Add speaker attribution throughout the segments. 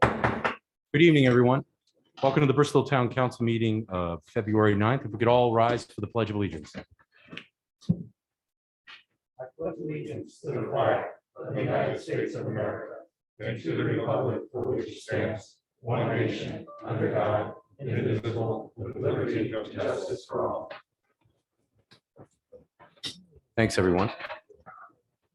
Speaker 1: Good evening, everyone. Welcome to the Bristol Town Council meeting of February 9th. If we could all rise for the Pledge of Allegiance.
Speaker 2: I pledge allegiance to the flag of the United States of America and to the republic for which it stands, one nation, under God, indivisible, with liberty and justice for all.
Speaker 1: Thanks, everyone.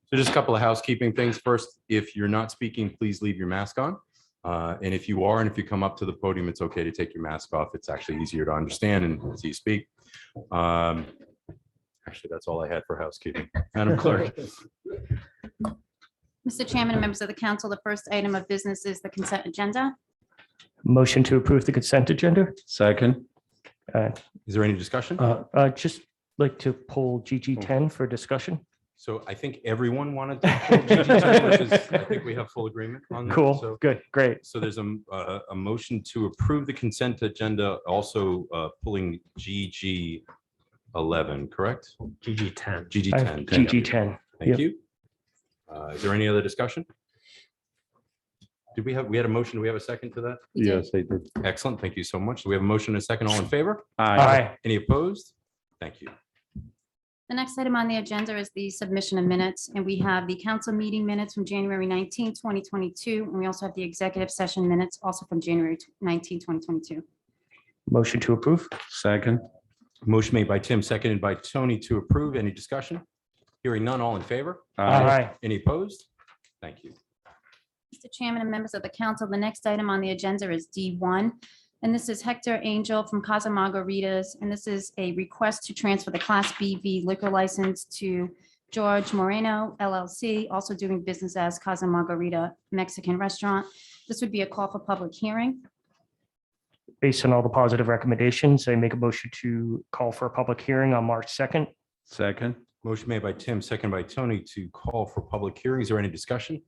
Speaker 1: So just a couple of housekeeping things. First, if you're not speaking, please leave your mask on. Uh, And if you are, and if you come up to the podium, it's okay to take your mask off. It's actually easier to understand and see you speak. Um, Actually, that's all I had for housekeeping. Madam Clerk.
Speaker 3: Mr. Chairman and members of the council, the first item of business is the consent agenda.
Speaker 4: Motion to approve the consent agenda.
Speaker 5: Second,
Speaker 1: Is there any discussion?
Speaker 4: Uh, uh, Just like to pull GG10 for discussion.
Speaker 1: So I think everyone wanted. to which is- I think we have full agreement on that. So-
Speaker 4: Cool, good, great.
Speaker 1: So there's a, m- a- a motion to approve the consent agenda, also uh, pulling GG 11, correct?
Speaker 5: GG ten.
Speaker 1: GG
Speaker 4: I
Speaker 1: 10.
Speaker 4: have GG10.
Speaker 1: Thank
Speaker 4: yep.
Speaker 1: you. Uh, Is there any other discussion? Did we have, we had a motion, do we have a second to that?
Speaker 5: Yes, I did.
Speaker 1: Excellent, thank you so much. So We have a motion and a second, all in favor?
Speaker 4: Aye.
Speaker 1: Any opposed? Thank you.
Speaker 3: The next item on the agenda is the submission of minutes, and we have the council meeting minutes from January 19, 2022, and we also have the executive session minutes also from January 19, 2022.
Speaker 4: Motion to approve.
Speaker 5: Second,
Speaker 1: Motion made by Tim, seconded by Tony to approve. Any discussion? Hearing none, all in favor?
Speaker 4: Aye.
Speaker 1: Any opposed? Thank you.
Speaker 3: Mr. Chairman and members of the council, the next item on the agenda is D1. And this is Hector Angel from Casa Margaritas. And this is a request to transfer the Class BV liquor license to George Moreno LLC, also doing business as Casa Margarita Mexican Restaurant. This would be a call for public hearing.
Speaker 4: Based on all the positive recommendations, I make a motion to call for a public hearing on March 2nd.
Speaker 5: second,
Speaker 1: Motion made by Tim, second by Tony to call for public hearings or any discussion.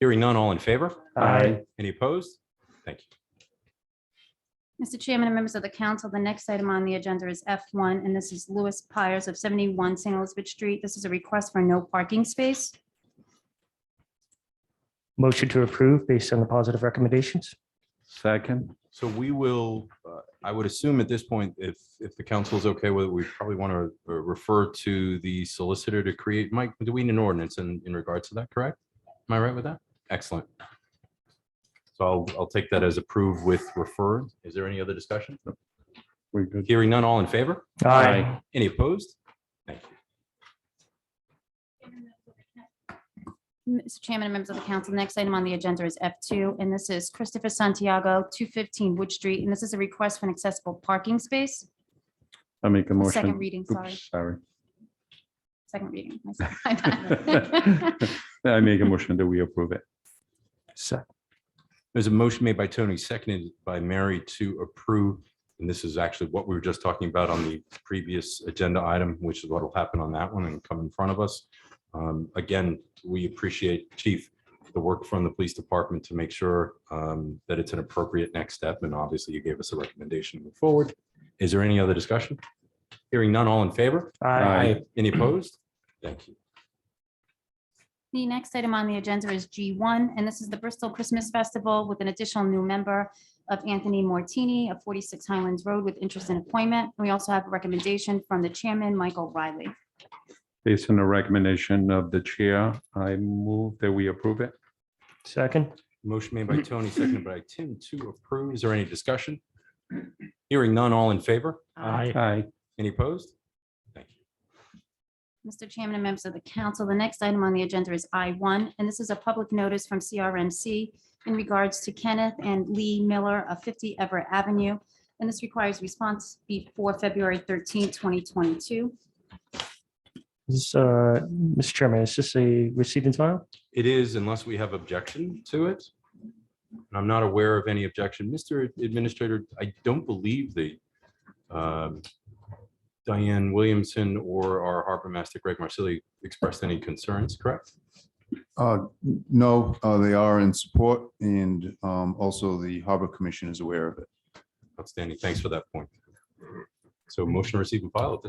Speaker 1: Hearing none, all in favor?
Speaker 5: Aye.
Speaker 1: Any opposed? Thank you.
Speaker 3: Mr. Chairman and members of the council, the next item on the agenda is F1, and this is Louis Pires of 71 St. Elizabeth Street. This is a request for no parking space.
Speaker 4: Motion to approve based on the positive recommendations.
Speaker 5: second,
Speaker 1: So we will, uh, I would assume at this point, if, if the council is okay with it, we probably want to refer to the solicitor to create, Mike, do we need an ordinance in, in regards to that, correct? Am I right with that? Excellent. So I'll, I'll take that as approved with referred. Is there any other discussion?
Speaker 5: we're good.
Speaker 1: Hearing none, all in favor?
Speaker 5: Aye.
Speaker 1: Any opposed? Thank you.
Speaker 3: Mr. Chairman and members of the council, next item on the agenda is F2, and this is Christopher Santiago, 215 Wood Street, and this is a request for an accessible parking space.
Speaker 5: I make a
Speaker 3: Second
Speaker 5: motion.
Speaker 3: reading, sorry,
Speaker 5: Oops, Sorry.
Speaker 3: second reading. my bad.
Speaker 5: I make a motion that we approve it.
Speaker 4: Se-
Speaker 1: There's a motion made by Tony, seconded by Mary to approve. And this is actually what we were just talking about on the previous agenda item, which is what will happen on that one and come in front of us. Um, Again, we appreciate, Chief, the work from the police department to make sure um, that it's an appropriate next step. And obviously, you gave us a recommendation to move forward. Is there any other discussion? Hearing none, all in favor?
Speaker 4: Aye.
Speaker 1: Any opposed? Thank you.
Speaker 3: The next item on the agenda is G1, and this is the Bristol Christmas Festival with an additional new member of Anthony Mortini of 46 Highlands Road with interest in appointment. We also have a recommendation from the chairman, Michael Riley.
Speaker 5: Based on the recommendation of the chair, I move that we approve it.
Speaker 4: Second.
Speaker 1: Motion made by Tony, seconded by Tim to approve. Is there any discussion? Hearing none, all in favor?
Speaker 5: Aye.
Speaker 1: Any opposed? Thank you.
Speaker 3: Mr. Chairman and members of the council, the next item on the agenda is I1, and this is a public notice from CRMC in regards to Kenneth and Lee Miller of 50 Everett Avenue, and this requires response before February 13, 2022.
Speaker 4: This, uh, Mr. Chairman, is this a receipt and file?
Speaker 1: It is unless we have objection to it. And I'm not aware of any objection. Mr. Administrator, I don't believe the um, Diane Williamson or our Harbor Master Greg Marsili expressed any concerns, correct?
Speaker 6: Uh, No, uh, they are in support and um, also the Harbor Commission is aware of it.
Speaker 1: Outstanding. Thanks for that point. So motion to receive and file at this